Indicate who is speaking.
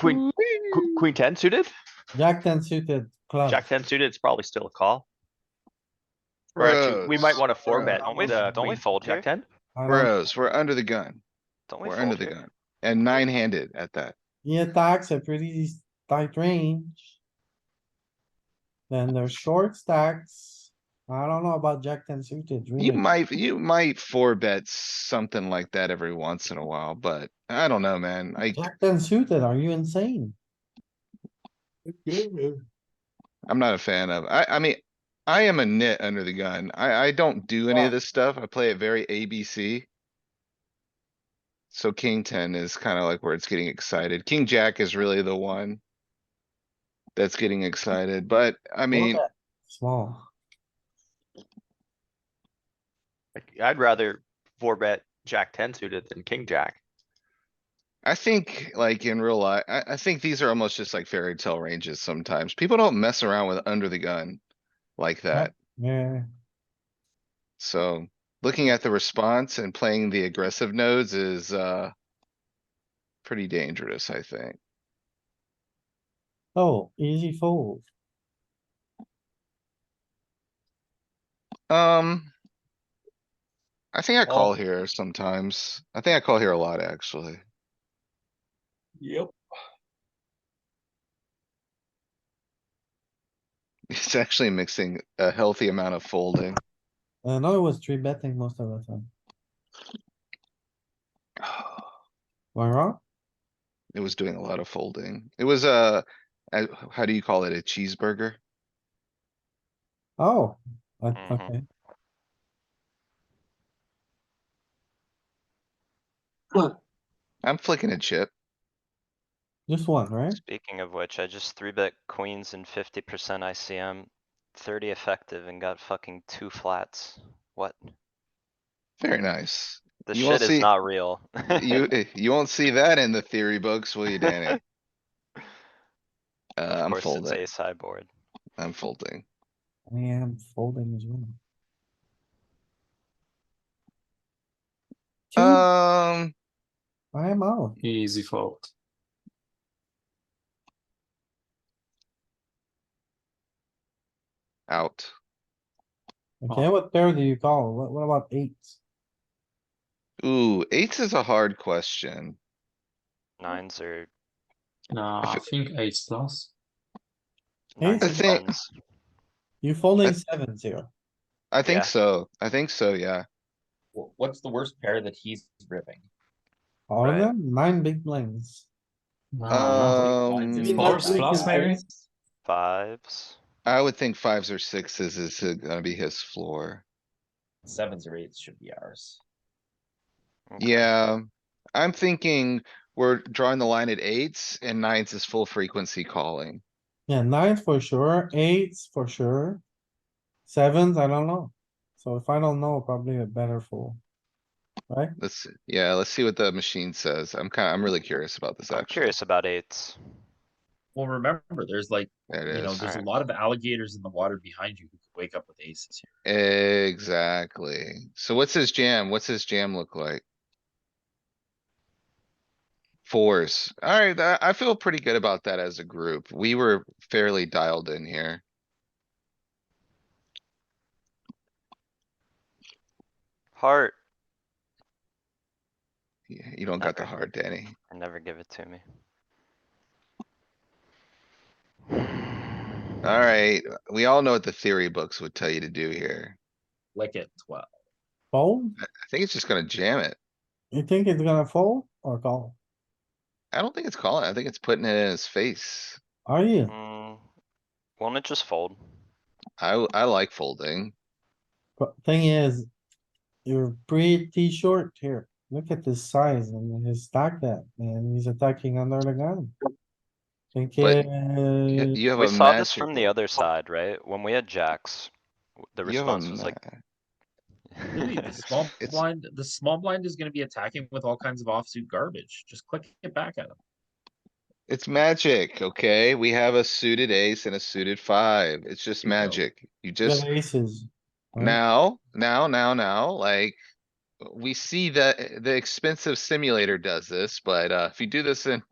Speaker 1: Queen- Qu- Queen ten suited,
Speaker 2: Jack ten suited club.
Speaker 1: jack ten suited, it's probably still a call. Or actually, we might
Speaker 3: Bros,
Speaker 1: wanna four
Speaker 2: Bruh.
Speaker 1: bet
Speaker 4: Don't we-
Speaker 1: the
Speaker 4: don't we
Speaker 1: queen
Speaker 4: fold
Speaker 1: jack
Speaker 4: here?
Speaker 1: ten.
Speaker 2: I like-
Speaker 3: Bros, we're under the gun.
Speaker 4: Don't we
Speaker 3: We're
Speaker 4: fold
Speaker 3: under the
Speaker 4: here?
Speaker 3: gun. And nine-handed at that.
Speaker 2: He attacks a pretty tight range. Then there's short stacks. I don't know about jack ten suited.
Speaker 3: You
Speaker 2: really.
Speaker 3: might, you might four bet something like that every once in a while, but I don't know, man. I,
Speaker 2: Jack ten suited, are you insane?
Speaker 3: I'm not a fan of, I, I mean, I am a nit under the gun. I, I don't do any
Speaker 2: Yeah.
Speaker 3: of this stuff. I play it very ABC. So king ten is kinda like where it's getting excited. King jack is really the one that's getting excited, but I mean,
Speaker 2: Small.
Speaker 1: Like, I'd rather four bet jack ten suited than king jack.
Speaker 3: I think like in real life, I, I think these are almost just like fairy tale ranges sometimes. People don't mess around with under the gun like that.
Speaker 2: Yeah,
Speaker 3: So looking at the response and playing the aggressive nodes is, uh, pretty dangerous, I think.
Speaker 2: oh, easy fold.
Speaker 3: Um. I think I
Speaker 1: Well-
Speaker 3: call here sometimes. I think I call here a lot, actually.
Speaker 4: Yep.
Speaker 3: It's actually mixing a healthy amount of folding.
Speaker 2: I know Uh, it was three betting most of the time. Am I wrong?
Speaker 3: It was doing a lot of folding. It was a, a- how do you call it? A cheeseburger?
Speaker 2: Oh, I-
Speaker 3: Mm-hmm.
Speaker 4: Mhm.
Speaker 2: okay.
Speaker 3: I'm flicking a chip.
Speaker 2: Just one, right?
Speaker 4: Speaking of which, I just three bet queens and fifty percent ICM, thirty effective and got fucking two flats. What?
Speaker 3: Very nice.
Speaker 4: This
Speaker 3: You wanna
Speaker 4: shit is
Speaker 3: see-
Speaker 4: not real.
Speaker 3: You, eh, you won't see that in the theory books, will you, Danny?
Speaker 4: Of
Speaker 3: Uh, I'm
Speaker 4: course it's
Speaker 3: folding,
Speaker 4: Ace high board.
Speaker 3: I'm folding.
Speaker 2: I am folding as well. Two,
Speaker 3: Um,
Speaker 2: I am out.
Speaker 5: Easy fold.
Speaker 3: out.
Speaker 2: Okay, what pair do you call? What, what about eights?
Speaker 3: Ooh, eights is a hard question.
Speaker 4: Nines are.
Speaker 5: No, I think eight plus.
Speaker 4: nines
Speaker 3: I
Speaker 4: and
Speaker 3: think-
Speaker 4: ones.
Speaker 2: You folding sevens here.
Speaker 3: I think
Speaker 4: Yeah.
Speaker 3: so. I think so, yeah.
Speaker 6: Wh- What's the worst pair that he's ripping?
Speaker 2: All of
Speaker 4: Right.
Speaker 2: them, nine big blinds.
Speaker 5: No,
Speaker 6: Uh,
Speaker 3: Um,
Speaker 5: nothing. Fours plus maybe?
Speaker 4: Fives.
Speaker 3: I would think fives or sixes is uh, gonna be his floor.
Speaker 6: Sevens or eights should be ours.
Speaker 4: Okay.
Speaker 3: Yeah, I'm thinking we're drawing the line at eights and nines is full frequency calling.
Speaker 2: Yeah, nines for sure, eights for sure. Sevens, I don't know. So if I don't know, probably a better fold.
Speaker 3: Let's, yeah, let's see what the machine says. I'm kinda, I'm really curious about this
Speaker 4: I'm
Speaker 3: actually.
Speaker 4: curious about eights.
Speaker 6: Well, remember, there's like,
Speaker 3: There
Speaker 6: you
Speaker 3: it
Speaker 6: know,
Speaker 3: is.
Speaker 6: there's a lot of alligators in the water behind you who could wake up with aces here.
Speaker 3: Exactly. So what's his jam? What's his jam look like? Fours. Alright, I, I feel pretty good about that as a group. We were fairly dialed in here.
Speaker 4: Heart.
Speaker 3: Y- You don't got the
Speaker 4: Okay.
Speaker 3: heart, Danny.
Speaker 4: Never give it to me.
Speaker 3: Alright, we all know what the theory books would tell you to do here.
Speaker 6: Like at twelve.
Speaker 2: Fold?
Speaker 3: I think it's just gonna jam it.
Speaker 2: You think it's gonna fold or call?
Speaker 3: I don't think it's calling. I think it's putting it in his face.
Speaker 2: Are you?
Speaker 4: Mm, Won't it just fold?
Speaker 3: I, w- I like folding.
Speaker 2: But thing is, you're pretty short here. Look at his size and his stack that, and he's attacking under the gun. Think
Speaker 3: But You
Speaker 2: uh,
Speaker 3: you have
Speaker 4: We
Speaker 3: a
Speaker 4: saw this
Speaker 3: master.
Speaker 4: from the other side, right? When we had jacks, w- the
Speaker 3: you have a
Speaker 4: response was like.
Speaker 6: Really, the small
Speaker 3: It's-
Speaker 6: blind, the small blind is gonna be attacking with all kinds of offsuit garbage. Just click it back at him.
Speaker 3: It's magic, okay? We have a suited ace and a suited five. It's just
Speaker 6: You know.
Speaker 3: magic. You
Speaker 2: you
Speaker 3: just,
Speaker 2: have aces. right?
Speaker 3: now, now, now, now, like. We see that the expensive simulator does this, but uh, if you do this in